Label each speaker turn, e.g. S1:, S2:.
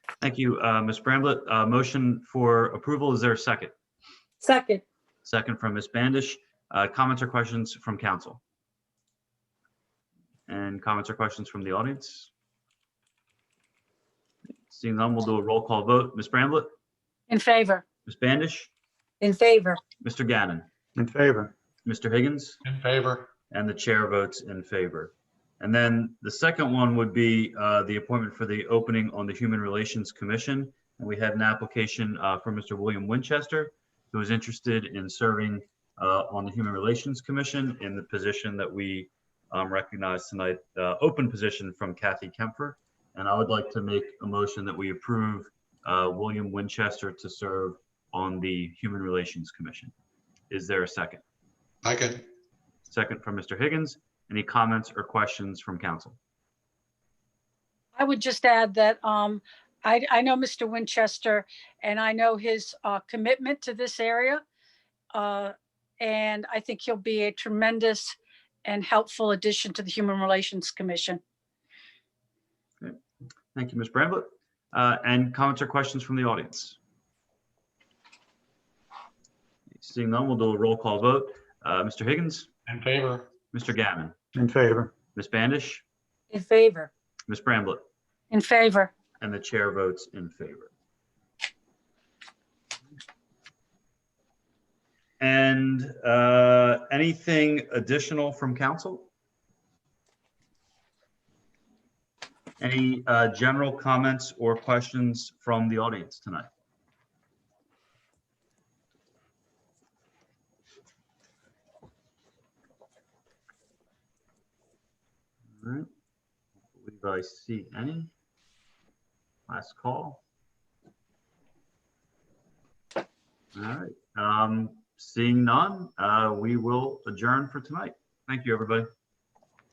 S1: Thank you, uh, Ms. Bramblett. Uh, Motion for approval, is there a second?
S2: Second,
S1: Second from Ms. Bandish. Uh, Comments or questions from council? And comments or questions from the audience? Seeing none, we'll do a roll call vote. Ms. Bramblett,
S3: In favor,
S1: Ms. Bandish,
S2: in favor,
S1: Mr. Gannon,
S4: In favor.
S1: Mr. Higgins?
S4: In favor.
S1: And the chair votes in favor. And then the second one would be uh, the appointment for the opening on the Human Relations Commission. And we had an application uh, from Mr. William Winchester, who is interested in serving uh, on the Human Relations Commission in the position that we um, recognize tonight, uh, open position from Kathy Kempfer. And I would like to make a motion that we approve uh, William Winchester to serve on the Human Relations Commission. Is there a second?
S5: I can,
S1: Second from Mr. Higgins. Any comments or questions from council?
S3: I would just add that um, I, I know Mr. Winchester and I know his uh, commitment to this area. uh, And I think he'll be a tremendous and helpful addition to the Human Relations Commission.
S1: Thank you, Ms. Bramblett. Uh, And comments or questions from the audience? Seeing none, we'll do a roll call vote. Uh, Mr. Higgins,
S5: in favor,
S1: Mr. Gavin,
S4: In favor.
S1: Ms. Bandish,
S2: in favor,
S1: Ms. Bramblett,
S3: In favor,
S1: and the chair votes in favor. And uh, anything additional from council? Any uh, general comments or questions from the audience tonight? All right, believe I see any. Last call. All right, um, seeing none, uh, we will adjourn for tonight. Thank you, everybody.